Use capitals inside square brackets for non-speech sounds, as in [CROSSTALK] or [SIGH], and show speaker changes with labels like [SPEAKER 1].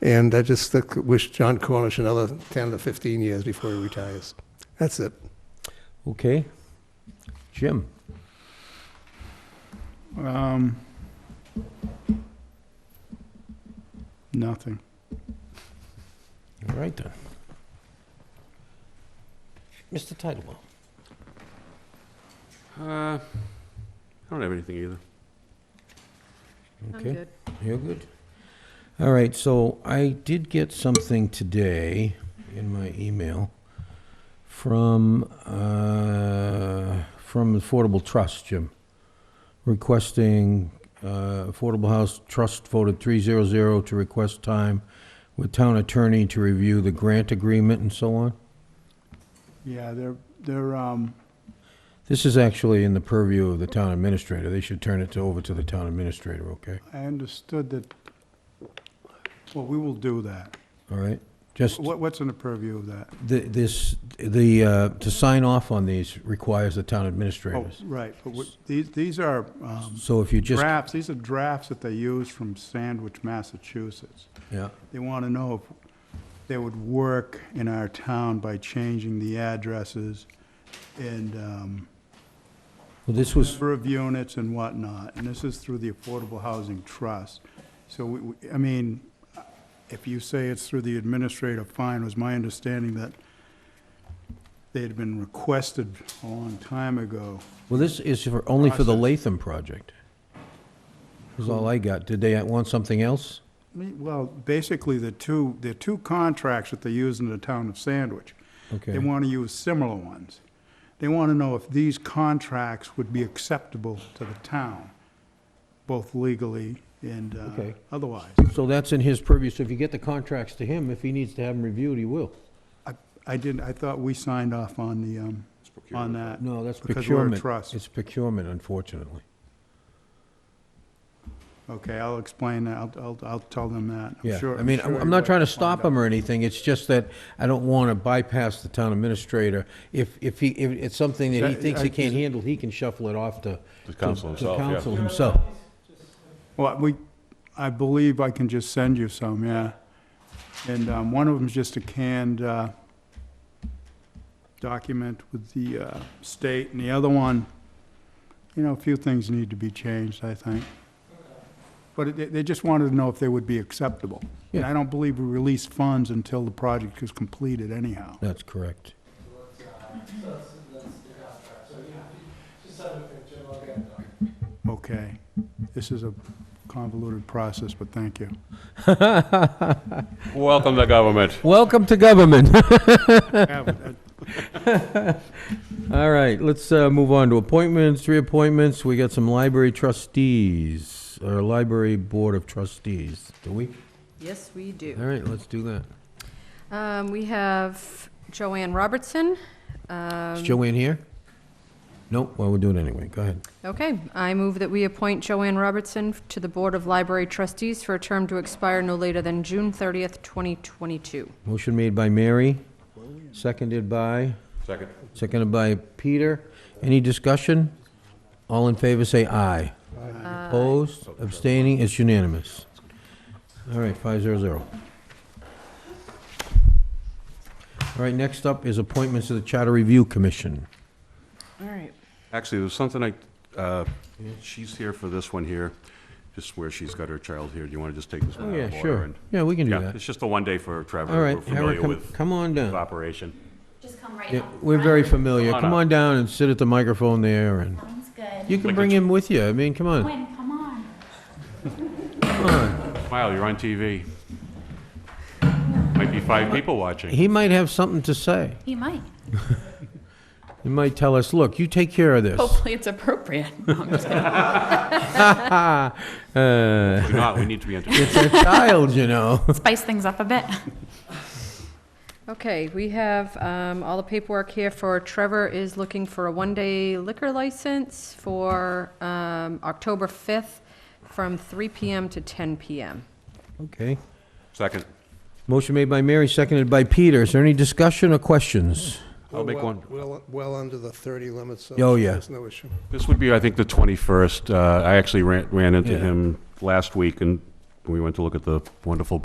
[SPEAKER 1] And I just think- wish John Cornish another 10 to 15 years before he retires. That's it.
[SPEAKER 2] Okay. Jim?
[SPEAKER 3] Um, nothing.
[SPEAKER 2] All right then. Mr. Titlebaum?
[SPEAKER 4] Uh, I don't have anything either.
[SPEAKER 2] Okay. You're good. All right, so I did get something today in my email from, uh, from Affordable Trust, Jim, requesting, uh, Affordable House Trust voted 300 to request time with town attorney to review the grant agreement and so on.
[SPEAKER 3] Yeah, they're, they're, um,
[SPEAKER 2] This is actually in the purview of the town administrator. They should turn it to- over to the town administrator, okay?
[SPEAKER 3] I understood that, well, we will do that.
[SPEAKER 2] All right? Just.
[SPEAKER 3] What, what's in the purview of that?
[SPEAKER 2] Th- This, the, uh, to sign off on these requires the town
[SPEAKER 3] Oh,
[SPEAKER 2] administrators.
[SPEAKER 3] right, but what, these, these are, um,
[SPEAKER 2] So if you just,
[SPEAKER 3] drafts, these are drafts that they use from Sandwich, Massachusetts.
[SPEAKER 2] yeah,
[SPEAKER 3] They want to know if they would work in our town by changing the addresses and, um,
[SPEAKER 2] well, this was,
[SPEAKER 3] number of units and whatnot, and this is through the Affordable Housing Trust. So, we- we- I mean, if you say it's through the administrator, fine, it was my understanding that they had been requested a long time ago.
[SPEAKER 2] well, this is for, only for the
[SPEAKER 3] Process.
[SPEAKER 2] Latham project. Is all I got. Did they want something else?
[SPEAKER 3] I mean, Well, basically, the two, the two contracts that they use in the town of Sandwich,
[SPEAKER 2] Okay,
[SPEAKER 3] they want to use similar ones. They want to know if these contracts would be acceptable to the town, both legally and uh,
[SPEAKER 2] Okay.
[SPEAKER 3] otherwise.
[SPEAKER 2] so that's in his purview, so if you get the contracts to him, if he needs to have them reviewed, he will.
[SPEAKER 3] I- I didn't, I thought we signed off on the, um, on that.
[SPEAKER 2] No, that's
[SPEAKER 3] Because we're a
[SPEAKER 2] procurement.
[SPEAKER 3] trust.
[SPEAKER 2] It's procurement, unfortunately.
[SPEAKER 3] Okay, I'll explain that, I'll, I'll, I'll tell them that. I'm
[SPEAKER 2] Yeah,
[SPEAKER 3] sure-
[SPEAKER 2] I mean,
[SPEAKER 3] sure
[SPEAKER 2] I'm
[SPEAKER 3] you'll
[SPEAKER 2] not trying to
[SPEAKER 3] find
[SPEAKER 2] stop
[SPEAKER 3] out.
[SPEAKER 2] him or anything, it's just that I don't want to bypass the town administrator. If, if he, if it's something that he
[SPEAKER 3] That-
[SPEAKER 2] thinks he
[SPEAKER 3] I-
[SPEAKER 2] can't handle, he can shuffle it off to.
[SPEAKER 4] The council
[SPEAKER 2] to-
[SPEAKER 4] himself, yeah.
[SPEAKER 2] To council himself.
[SPEAKER 3] Well, we, I believe I can just send you some, yeah. And, um, one of them's just a canned, uh, document with the, uh, state, and the other one, you know, a few things need to be changed, I think. But it- they, they just wanted to know if they would be acceptable. And
[SPEAKER 2] Yeah.
[SPEAKER 3] I don't believe we release funds until the project is completed anyhow.
[SPEAKER 2] That's correct.
[SPEAKER 3] Okay, this is a convoluted process, but thank you.
[SPEAKER 4] Welcome to government.
[SPEAKER 2] Welcome to government. [LAUGHS]
[SPEAKER 3] Yeah,
[SPEAKER 2] All right, let's uh, move on to appointments, reappointments. We got some library trustees, or library board of trustees. Do we?
[SPEAKER 5] Yes, we
[SPEAKER 2] All
[SPEAKER 5] do.
[SPEAKER 2] right, let's do that.
[SPEAKER 5] Um, We have Joanne Robertson. Um,
[SPEAKER 2] Is Joanne here? Nope, well, we'll do it anyway. Go ahead.
[SPEAKER 5] Okay, I move that we appoint Joanne Robertson to the Board of Library Trustees for a term to expire no later than June 30th, 2022.
[SPEAKER 2] Motion made by Mary, seconded by?
[SPEAKER 4] Second.
[SPEAKER 2] Seconded by Peter. Any discussion? All in favor, say aye. Opposed, abstaining, it's unanimous. All right, five zero zero. All right, next up is appointments to the Charter Review Commission.
[SPEAKER 5] All right.
[SPEAKER 4] Actually, there's something I, uh, she's here for this one here, just where she's got her child here. Do you want to just take this one
[SPEAKER 2] Oh,
[SPEAKER 4] out
[SPEAKER 2] yeah,
[SPEAKER 4] of order?
[SPEAKER 2] sure.
[SPEAKER 4] and-
[SPEAKER 2] Yeah, we can do
[SPEAKER 4] Uh, Yeah,
[SPEAKER 2] that.
[SPEAKER 4] it's just a one day for Trevor.
[SPEAKER 2] All right,
[SPEAKER 4] We're
[SPEAKER 2] Howard,
[SPEAKER 4] familiar
[SPEAKER 2] come,
[SPEAKER 4] with
[SPEAKER 2] come on
[SPEAKER 4] his
[SPEAKER 2] down.
[SPEAKER 4] operation.
[SPEAKER 6] Just come right
[SPEAKER 2] Yeah,
[SPEAKER 6] up.
[SPEAKER 2] We're very
[SPEAKER 6] front.
[SPEAKER 2] familiar.
[SPEAKER 4] Come on
[SPEAKER 2] Come
[SPEAKER 4] up.
[SPEAKER 2] on down and sit at the microphone there, and
[SPEAKER 6] Sounds good.
[SPEAKER 2] you can bring him with you. I mean, come on.
[SPEAKER 6] Gwen, come on.
[SPEAKER 4] Smile, you're on TV. Might be five people watching.
[SPEAKER 2] He might have something to say.
[SPEAKER 6] He might.
[SPEAKER 2] He might tell us, look, you take care of this.
[SPEAKER 7] Hopefully it's appropriate.
[SPEAKER 2] [LAUGHS]
[SPEAKER 7] No, I'm just kidding.
[SPEAKER 2] Uh,
[SPEAKER 4] Do not, we need to be entertained.
[SPEAKER 2] It's a child, you know.
[SPEAKER 7] Spice things up a bit.
[SPEAKER 5] Okay, we have um, all the paperwork here for Trevor is looking for a one-day liquor license for um, October 5th from 3 PM to 10 PM.
[SPEAKER 2] Okay.
[SPEAKER 4] Second.
[SPEAKER 2] Motion made by Mary, seconded by Peter. Is there any discussion or questions?
[SPEAKER 4] I'll make
[SPEAKER 1] We're well-
[SPEAKER 4] one.
[SPEAKER 1] Well, well under the 30 limit, so
[SPEAKER 2] Oh, yeah.
[SPEAKER 1] there's no issue.
[SPEAKER 4] This would be, I think, the 21st. Uh, I actually ran, ran into
[SPEAKER 2] Yeah.
[SPEAKER 4] him last week and we went to look at the wonderful